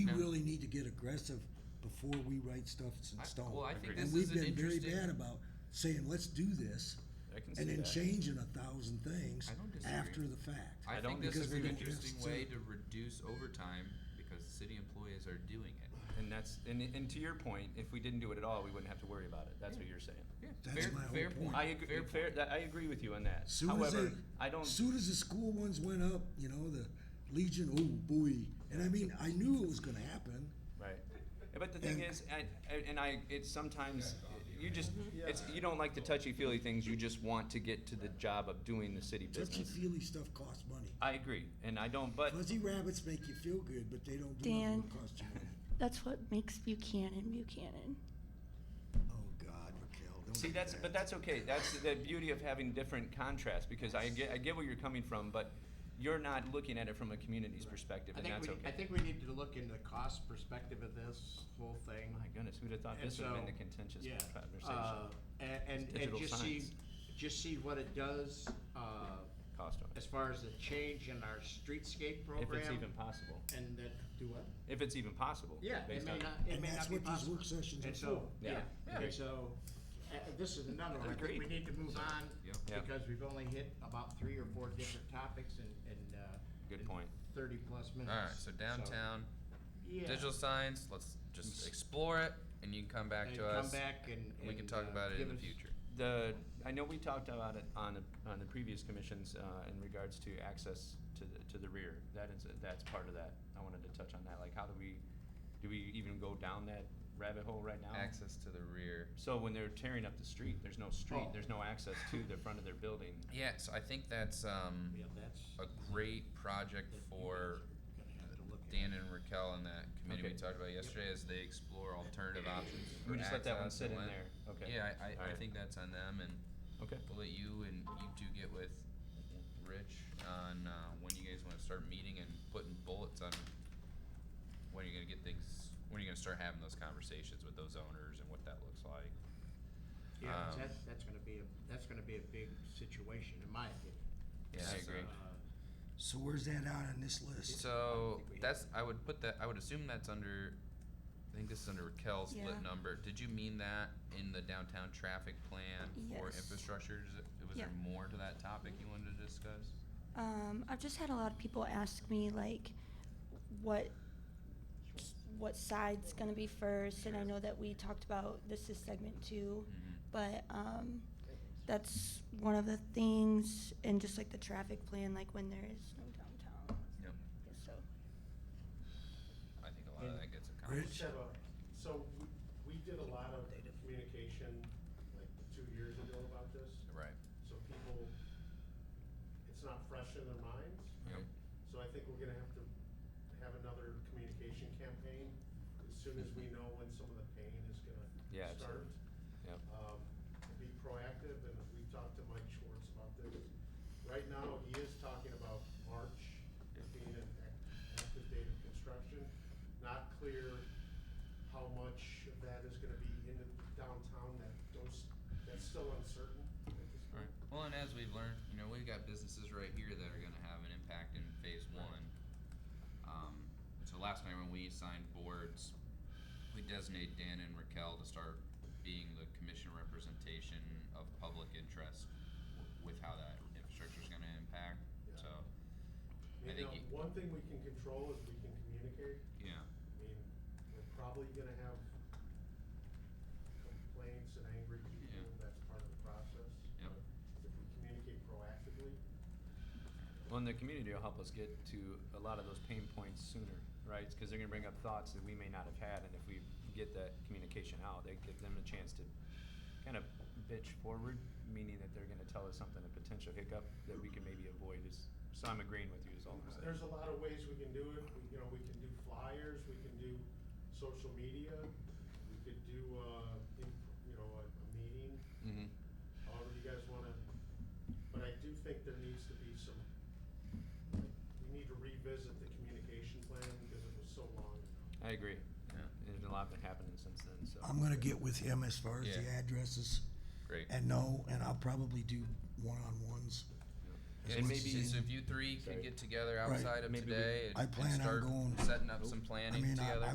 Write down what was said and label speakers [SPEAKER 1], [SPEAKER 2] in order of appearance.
[SPEAKER 1] get aggressive before we write stuff that's
[SPEAKER 2] I-
[SPEAKER 1] in stone.
[SPEAKER 2] well, I think
[SPEAKER 3] Agreed.
[SPEAKER 2] this
[SPEAKER 1] And
[SPEAKER 2] is
[SPEAKER 1] we've
[SPEAKER 2] an
[SPEAKER 1] been very
[SPEAKER 2] interesting.
[SPEAKER 1] bad about saying, let's do this,
[SPEAKER 3] I can see
[SPEAKER 1] and then
[SPEAKER 3] that.
[SPEAKER 1] changing a thousand things
[SPEAKER 2] I don't disagree.
[SPEAKER 1] after the fact.
[SPEAKER 2] I
[SPEAKER 3] I
[SPEAKER 2] think
[SPEAKER 3] don't
[SPEAKER 2] this is
[SPEAKER 1] disagree
[SPEAKER 2] an
[SPEAKER 1] with you.
[SPEAKER 2] interesting way
[SPEAKER 1] So-
[SPEAKER 2] to reduce overtime because city employees are doing it.
[SPEAKER 3] And that's and, and to your point, if we didn't do it at all, we wouldn't have to worry about it. That's what you're saying.
[SPEAKER 2] Yeah,
[SPEAKER 1] That's
[SPEAKER 2] fair,
[SPEAKER 1] my whole
[SPEAKER 2] fair
[SPEAKER 1] point.
[SPEAKER 2] point.
[SPEAKER 3] I agree.
[SPEAKER 2] Fair
[SPEAKER 3] Fair,
[SPEAKER 2] point.
[SPEAKER 3] that, I agree with you on that.
[SPEAKER 1] Soon as
[SPEAKER 3] However,
[SPEAKER 1] they-
[SPEAKER 3] I don't.
[SPEAKER 1] Soon as the school ones went up, you know, the Legion, oh boy, and I mean, I knew it was gonna happen.
[SPEAKER 3] Right. But the thing
[SPEAKER 1] And-
[SPEAKER 3] is, and, and I, it's sometimes, you just, it's, you don't like the touchy-feely things, you just want to get to the job of doing the city
[SPEAKER 1] Touchy
[SPEAKER 3] business.
[SPEAKER 1] feely stuff costs money.
[SPEAKER 3] I agree, and I don't, but,
[SPEAKER 1] Fuzzy rabbits make you feel good, but they don't do nothing
[SPEAKER 4] Dan.
[SPEAKER 1] that costs you money.
[SPEAKER 4] That's what makes Buchanan Buchanan.
[SPEAKER 1] Oh, God, Raquel, don't
[SPEAKER 3] see,
[SPEAKER 1] do
[SPEAKER 3] that's,
[SPEAKER 1] that.
[SPEAKER 3] but that's okay, that's the beauty of having different contrasts, because I get, I get where you're coming from, but you're not looking at it from a community's perspective,
[SPEAKER 5] I
[SPEAKER 3] and
[SPEAKER 5] think
[SPEAKER 3] that's
[SPEAKER 5] we, I
[SPEAKER 3] okay.
[SPEAKER 5] think we need to look into the cost perspective of this whole thing.
[SPEAKER 3] My goodness, who'd have thought
[SPEAKER 5] And
[SPEAKER 3] this would've been
[SPEAKER 5] so,
[SPEAKER 3] the contentious
[SPEAKER 5] yeah,
[SPEAKER 3] conversation,
[SPEAKER 5] uh, And, and,
[SPEAKER 3] It's
[SPEAKER 5] and
[SPEAKER 3] digital
[SPEAKER 5] just see,
[SPEAKER 3] signs.
[SPEAKER 5] just see what it does, uh,
[SPEAKER 3] cost
[SPEAKER 5] as
[SPEAKER 3] wise,
[SPEAKER 5] far as the change in our streetscape
[SPEAKER 3] if
[SPEAKER 5] program.
[SPEAKER 3] it's even possible,
[SPEAKER 5] And that, do what?
[SPEAKER 3] if it's even possible.
[SPEAKER 5] Yeah, it
[SPEAKER 3] based
[SPEAKER 5] may
[SPEAKER 3] on-
[SPEAKER 5] not, it
[SPEAKER 1] And
[SPEAKER 5] may not
[SPEAKER 1] that's
[SPEAKER 5] be
[SPEAKER 1] what these
[SPEAKER 5] possible.
[SPEAKER 1] work sessions are
[SPEAKER 5] And
[SPEAKER 1] for.
[SPEAKER 5] so,
[SPEAKER 3] Yeah.
[SPEAKER 5] yeah,
[SPEAKER 3] Yeah.
[SPEAKER 5] and so, uh, this is another one, I think we
[SPEAKER 3] Agreed.
[SPEAKER 5] need to move on,
[SPEAKER 2] yeah.
[SPEAKER 3] Yeah.
[SPEAKER 5] because we've only hit about three or four different topics in, in, uh.
[SPEAKER 3] Good
[SPEAKER 5] in
[SPEAKER 3] point.
[SPEAKER 5] Thirty-plus minutes.
[SPEAKER 2] All right, so downtown,
[SPEAKER 5] Yeah.
[SPEAKER 2] digital signs. Let's just explore it, and you can come back
[SPEAKER 5] And
[SPEAKER 2] to
[SPEAKER 5] come
[SPEAKER 2] us.
[SPEAKER 5] back and,
[SPEAKER 2] and we can
[SPEAKER 5] and,
[SPEAKER 2] talk
[SPEAKER 5] uh,
[SPEAKER 2] about it in
[SPEAKER 5] give
[SPEAKER 2] the
[SPEAKER 5] us-
[SPEAKER 2] future.
[SPEAKER 3] The, I know we talked about it on the, on the previous commissions, uh, in regards to access to the, to the rear. That is, that's part of that. I wanted to touch on that, like how do we, do we even go down that rabbit hole right now?
[SPEAKER 2] Access to the rear.
[SPEAKER 3] So when they're tearing up the street, there's no
[SPEAKER 5] Oh.
[SPEAKER 3] street, there's no access to the front of their building.
[SPEAKER 2] Yeah, so I think that's um,
[SPEAKER 5] Yeah, that's.
[SPEAKER 2] a great project for
[SPEAKER 5] Gonna have to look at.
[SPEAKER 2] Dan and Raquel and that committee we
[SPEAKER 3] Okay.
[SPEAKER 2] talked about yesterday as they explore alternative options. for
[SPEAKER 3] We just let that one
[SPEAKER 2] access
[SPEAKER 3] sit
[SPEAKER 2] and
[SPEAKER 3] in
[SPEAKER 2] when-
[SPEAKER 3] there, okay?
[SPEAKER 2] Yeah, I, I, I
[SPEAKER 3] Alright.
[SPEAKER 2] think that's on them, and
[SPEAKER 3] Okay,
[SPEAKER 2] we'll let you and you two get with Rich on uh, when you guys want to start meeting and putting bullets on when you're gonna get things. When you're gonna start having those conversations with those owners and what that looks like.
[SPEAKER 5] Yeah,
[SPEAKER 2] Um,
[SPEAKER 5] that's, that's gonna be, a- that's gonna be a big situation, in my opinion.
[SPEAKER 2] Yeah, I agree.
[SPEAKER 5] Uh,
[SPEAKER 1] So where's that out on this list?
[SPEAKER 2] So
[SPEAKER 5] think we have
[SPEAKER 2] that's I would put that I would assume that's under I think this is under Raquel's
[SPEAKER 4] Yeah.
[SPEAKER 2] split number. Did you mean that in the downtown traffic plan for
[SPEAKER 4] Yes.
[SPEAKER 2] infrastructure? Is it- Was
[SPEAKER 4] Yeah.
[SPEAKER 2] there more to that topic you wanted to discuss?
[SPEAKER 4] Um, I've just had a lot of people ask me like, what, what side's gonna be first, and I know that we talked about this is segment two,
[SPEAKER 2] Mhm.
[SPEAKER 4] but um,
[SPEAKER 5] uh,
[SPEAKER 4] that's one of the things, and just like the traffic plan, like when there is no downtown.
[SPEAKER 2] Yep.
[SPEAKER 4] Yeah, So
[SPEAKER 2] I think a lot of
[SPEAKER 6] And-
[SPEAKER 2] that gets
[SPEAKER 1] Rich?
[SPEAKER 2] accomplished.
[SPEAKER 6] Have a- So we, we did a lot of communication like two years ago about this,
[SPEAKER 2] Right.
[SPEAKER 6] so people, it's not fresh in their minds.
[SPEAKER 2] Yep.
[SPEAKER 6] So I think we're gonna have to have another communication campaign as soon as we
[SPEAKER 2] Mm-hmm.
[SPEAKER 6] know when some of the pain is gonna
[SPEAKER 3] Yeah,
[SPEAKER 6] start.
[SPEAKER 3] absolutely. Yep.
[SPEAKER 6] Um, and be proactive, and we talked to Mike Schwartz about this. Right now, he is talking about March being an ac- active date of construction. Not clear how much of that is gonna be in the downtown, that those, that's still uncertain at this
[SPEAKER 2] All
[SPEAKER 6] point.
[SPEAKER 2] right. Well, and as we've learned, you know, we've got businesses right here that are going to have an impact in phase one. Um, so last night when we signed boards, we designate Dan and Raquel to start being the commission representation of public interest w- with how that infrastructure is going to impact.
[SPEAKER 6] Yeah.
[SPEAKER 2] So, I
[SPEAKER 6] You
[SPEAKER 2] think
[SPEAKER 6] know,
[SPEAKER 2] you-
[SPEAKER 6] one thing we can control is we can communicate.
[SPEAKER 2] yeah.
[SPEAKER 6] I mean, we're probably gonna have complaints and angry people,
[SPEAKER 2] Yeah.
[SPEAKER 6] that's part of the process.
[SPEAKER 2] Yep.
[SPEAKER 6] But If we communicate proactively,
[SPEAKER 3] Well, and the community will help us get to a lot of those pain points sooner, right? Because they're gonna bring up thoughts that we may not have had, and if we get that communication out, they give them a chance to kind of bitch forward, meaning that they're gonna tell us something, a potential hiccup that we can maybe avoid is, so I'm agreeing with you is all I'm saying.
[SPEAKER 6] there's a lot of ways we can do it, we, you know, we can do flyers, we can do social media, we could do, uh, in- you know, a, a meeting,
[SPEAKER 3] Mm.
[SPEAKER 2] Mm-hmm.
[SPEAKER 6] however you guys wanna, but I do think there needs to be some, like, we need to revisit the communication plan because it was so long ago.
[SPEAKER 3] I agree.
[SPEAKER 2] Yeah.
[SPEAKER 3] There's a lot been happening since then, so.
[SPEAKER 1] I'm gonna get with him as far as the
[SPEAKER 2] Yeah.
[SPEAKER 1] addresses
[SPEAKER 2] Great.
[SPEAKER 1] and know, and I'll probably do one-on-ones.
[SPEAKER 2] Yeah,
[SPEAKER 1] as
[SPEAKER 2] And
[SPEAKER 1] much as
[SPEAKER 2] maybe,
[SPEAKER 1] I
[SPEAKER 2] so
[SPEAKER 1] can.
[SPEAKER 2] if you three
[SPEAKER 3] Sorry.
[SPEAKER 2] could get together
[SPEAKER 1] Right.
[SPEAKER 2] outside of
[SPEAKER 3] Maybe we-
[SPEAKER 2] today
[SPEAKER 1] I
[SPEAKER 2] and- and
[SPEAKER 1] plan on
[SPEAKER 2] start
[SPEAKER 1] going-
[SPEAKER 2] setting up some planning
[SPEAKER 1] mean, I-
[SPEAKER 2] together.
[SPEAKER 1] I